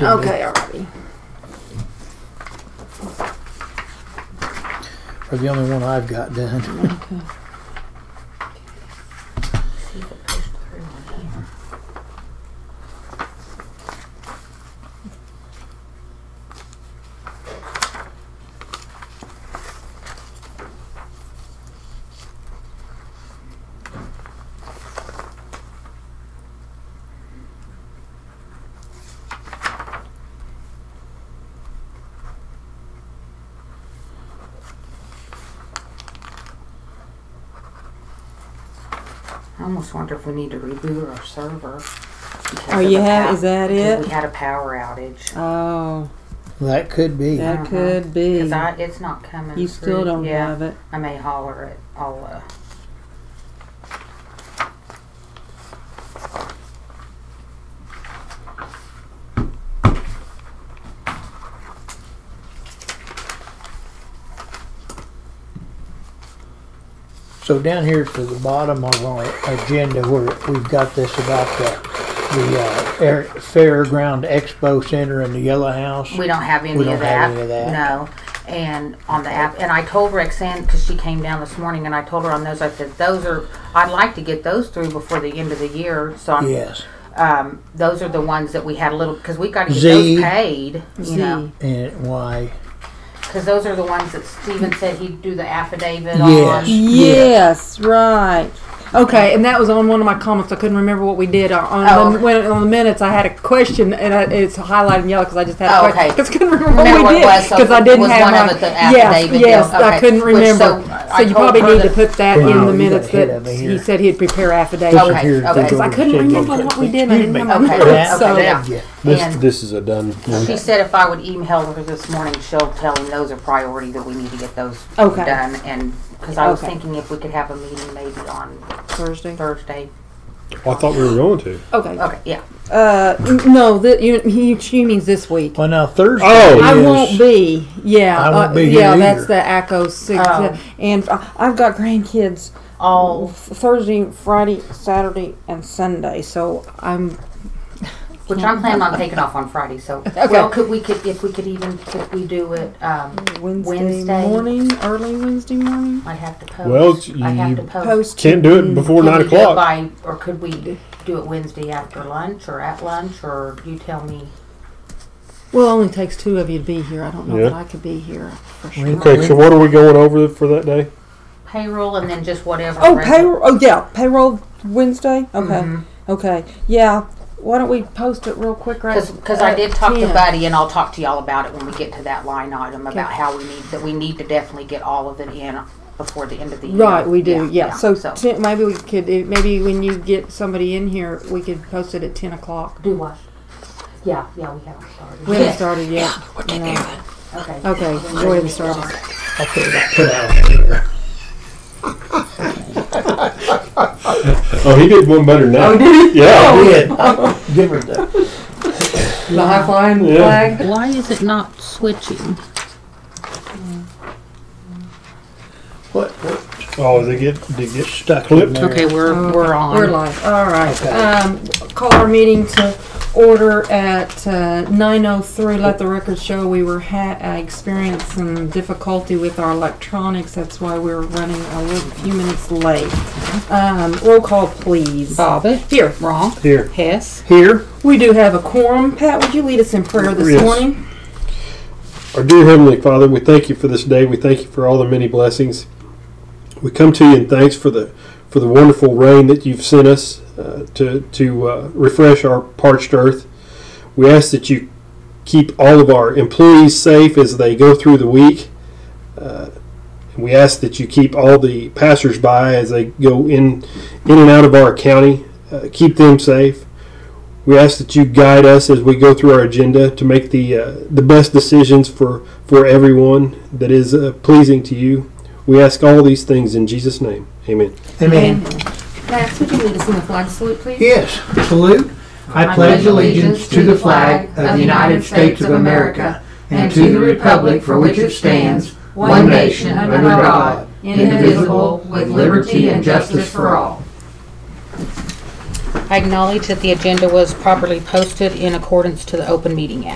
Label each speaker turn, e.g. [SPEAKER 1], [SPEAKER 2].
[SPEAKER 1] Okay, already.
[SPEAKER 2] Or the only one I've got done.
[SPEAKER 1] I almost wonder if we need to reboot our server. because
[SPEAKER 3] Oh,
[SPEAKER 1] of
[SPEAKER 3] you
[SPEAKER 1] the
[SPEAKER 3] have-
[SPEAKER 1] pow-
[SPEAKER 3] is that
[SPEAKER 1] because
[SPEAKER 3] it?
[SPEAKER 1] We had a power outage.
[SPEAKER 3] Oh,
[SPEAKER 2] That could be.
[SPEAKER 3] that
[SPEAKER 1] Mhm.
[SPEAKER 3] could be.
[SPEAKER 1] Cause I, it's not coming.
[SPEAKER 3] You still
[SPEAKER 1] through.
[SPEAKER 3] don't
[SPEAKER 1] yeah,
[SPEAKER 3] have it.
[SPEAKER 1] I may holler it. I'll. Uh,
[SPEAKER 2] So down here to the bottom of our agenda where we've got this about the, the uh, air, Fairground Expo Center in the Yellow House.
[SPEAKER 1] We don't have any
[SPEAKER 2] We don't
[SPEAKER 1] of that.
[SPEAKER 2] have any of that.
[SPEAKER 1] No. And on the app, and I told Roxanne because she came down this morning, and I told her on those. I said those are. I'd like to get those through before the end of the year. So I'm,
[SPEAKER 2] Yes,
[SPEAKER 1] um, those are the ones that we had a little because we got to get
[SPEAKER 2] Z.
[SPEAKER 1] those paid. You
[SPEAKER 3] Z.
[SPEAKER 1] know,
[SPEAKER 2] and why?
[SPEAKER 1] because those are the ones that Steven said he'd do the affidavit
[SPEAKER 2] Yes.
[SPEAKER 1] on.
[SPEAKER 3] Yes, right.
[SPEAKER 4] Okay, and that was on one of my comments. I couldn't remember what we did on, on,
[SPEAKER 1] Oh.
[SPEAKER 4] the, when, on the minutes. I had a question, and I, it's highlighted in yellow because I just had a
[SPEAKER 1] Oh, okay.
[SPEAKER 4] question because I couldn't remember
[SPEAKER 1] Remember
[SPEAKER 4] what
[SPEAKER 1] what
[SPEAKER 4] we
[SPEAKER 1] it
[SPEAKER 4] did
[SPEAKER 1] was, so
[SPEAKER 4] because I
[SPEAKER 1] it
[SPEAKER 4] didn't
[SPEAKER 1] was
[SPEAKER 4] have
[SPEAKER 1] one
[SPEAKER 4] my,
[SPEAKER 1] of it, the
[SPEAKER 4] yes,
[SPEAKER 1] affidavit
[SPEAKER 4] yes.
[SPEAKER 1] deal. Okay.
[SPEAKER 4] I couldn't
[SPEAKER 1] Which,
[SPEAKER 4] remember.
[SPEAKER 1] so, uh,
[SPEAKER 4] So,
[SPEAKER 1] I
[SPEAKER 4] you
[SPEAKER 1] told
[SPEAKER 4] probably
[SPEAKER 1] her
[SPEAKER 4] need
[SPEAKER 1] that-
[SPEAKER 4] to put that
[SPEAKER 2] Wow,
[SPEAKER 4] in
[SPEAKER 2] you
[SPEAKER 4] the
[SPEAKER 2] got
[SPEAKER 4] minutes
[SPEAKER 2] ahead
[SPEAKER 4] that
[SPEAKER 2] of me here.
[SPEAKER 4] he said he'd prepare affidavit.
[SPEAKER 2] This is
[SPEAKER 1] Okay,
[SPEAKER 2] here
[SPEAKER 1] okay.
[SPEAKER 2] to go
[SPEAKER 1] Because
[SPEAKER 4] I
[SPEAKER 2] to
[SPEAKER 4] couldn't
[SPEAKER 2] the
[SPEAKER 4] remember
[SPEAKER 2] agenda.
[SPEAKER 4] what we did, and I
[SPEAKER 2] Excuse
[SPEAKER 4] didn't
[SPEAKER 2] me.
[SPEAKER 4] have
[SPEAKER 1] Okay.
[SPEAKER 2] Yeah,
[SPEAKER 1] So-
[SPEAKER 2] yeah, yeah.
[SPEAKER 5] This,
[SPEAKER 1] And-
[SPEAKER 5] this is a done.
[SPEAKER 1] She said if I would email her this morning, she'll tell him those are priority that we need to get those
[SPEAKER 4] Okay.
[SPEAKER 1] done. And because I was
[SPEAKER 4] Okay.
[SPEAKER 1] thinking if we could have a meeting maybe on
[SPEAKER 4] Thursday.
[SPEAKER 1] Thursday.
[SPEAKER 5] Oh, I thought we were going to.
[SPEAKER 4] Okay.
[SPEAKER 1] Okay, yeah.
[SPEAKER 3] Uh, n- no, that you, he, she means this week.
[SPEAKER 2] Well, now Thursday
[SPEAKER 5] Oh.
[SPEAKER 4] I
[SPEAKER 2] is-
[SPEAKER 4] won't be. Yeah.
[SPEAKER 2] I won't
[SPEAKER 4] uh,
[SPEAKER 2] be here
[SPEAKER 4] yeah,
[SPEAKER 2] either.
[SPEAKER 4] that's the ACO six,
[SPEAKER 1] Oh.
[SPEAKER 4] uh,
[SPEAKER 3] And I- I've got grandkids
[SPEAKER 1] All
[SPEAKER 3] f- Thursday, Friday, Saturday, and Sunday, so I'm
[SPEAKER 1] which I'm planning on taking off on Friday. So well, could we could if we could even could we do it? Um,
[SPEAKER 3] Wednesday,
[SPEAKER 1] Wednesday.
[SPEAKER 3] morning, early Wednesday morning.
[SPEAKER 1] I'd have to post.
[SPEAKER 5] Well,
[SPEAKER 1] I have to
[SPEAKER 5] you
[SPEAKER 1] post.
[SPEAKER 3] Post
[SPEAKER 5] Can't do it before
[SPEAKER 1] Could
[SPEAKER 5] nine
[SPEAKER 1] we do it
[SPEAKER 5] o'clock.
[SPEAKER 1] by, or could we do it Wednesday after lunch or at lunch or you tell me?
[SPEAKER 4] Well, it only takes two of you to be here. I don't know
[SPEAKER 5] Yeah.
[SPEAKER 4] that I could be here for sure.
[SPEAKER 2] We-
[SPEAKER 5] Okay, so what are we going over for that day?
[SPEAKER 1] Payroll and then just whatever.
[SPEAKER 3] Oh,
[SPEAKER 1] res-
[SPEAKER 3] payroll. Oh, yeah, payroll Wednesday. Okay,
[SPEAKER 1] Mhm.
[SPEAKER 3] okay, yeah. Why don't we post it real quick, right?
[SPEAKER 1] Because I
[SPEAKER 3] at
[SPEAKER 1] did talk to
[SPEAKER 3] 10?
[SPEAKER 1] Buddy, and I'll talk to y'all about it when we get to that line item about how we need, that we need to definitely get all of it in before the end of the year.
[SPEAKER 4] Right, we do. Yeah. So,
[SPEAKER 1] So,
[SPEAKER 4] Ten, maybe we could. it- Maybe when you get somebody in here, we could post it at ten o'clock.
[SPEAKER 1] do what? Yeah, yeah, we haven't started.
[SPEAKER 4] We haven't started yet. No.
[SPEAKER 1] Okay.
[SPEAKER 4] Okay, go ahead and start.
[SPEAKER 5] Oh, he did one better than that. Oh, did he? Yeah.
[SPEAKER 2] Yeah. Give her the
[SPEAKER 4] The high flying
[SPEAKER 5] Yeah. flag.
[SPEAKER 6] Why is it not switching?
[SPEAKER 2] what, what
[SPEAKER 5] Oh, they get they get
[SPEAKER 2] stuck in
[SPEAKER 5] Clipped.
[SPEAKER 2] there.
[SPEAKER 6] Okay, we're we're on.
[SPEAKER 4] We're live. All right. Um, call our meeting to order at uh, 9:03. Let the record show we were ha- uh, experiencing some difficulty with our electronics. That's why we were running a little few minutes late. Um, roll call, please.
[SPEAKER 1] Uh,
[SPEAKER 6] Bobbit.
[SPEAKER 4] Here.
[SPEAKER 6] Wrong.
[SPEAKER 5] here.
[SPEAKER 6] Hess.
[SPEAKER 5] Here.
[SPEAKER 4] We do have a quorum. Pat, would you lead us in prayer this
[SPEAKER 5] Yes.
[SPEAKER 4] morning?
[SPEAKER 5] Our dear Heavenly Father, we thank you for this day. We thank you for all the many blessings. We come to you in thanks for the for the wonderful rain that you've sent us uh, to to uh, refresh our parched earth. We ask that you keep all of our employees safe as they go through the week. Uh, and we ask that you keep all the passersby as they go in in and out of our county. Uh, keep them safe. We ask that you guide us as we go through our agenda to make the uh, the best decisions for for everyone that is uh, pleasing to you. We ask all these things in Jesus' name. Amen.
[SPEAKER 2] I mean,
[SPEAKER 1] Max, would you lead us in the flag salute, please?
[SPEAKER 2] Yes, salute. I pledge allegiance to the flag of the United States of America and to the republic for which it stands, one nation under God, indivisible, with liberty and justice for all.
[SPEAKER 1] I acknowledge that the agenda was properly posted in accordance to the Open Meeting Act.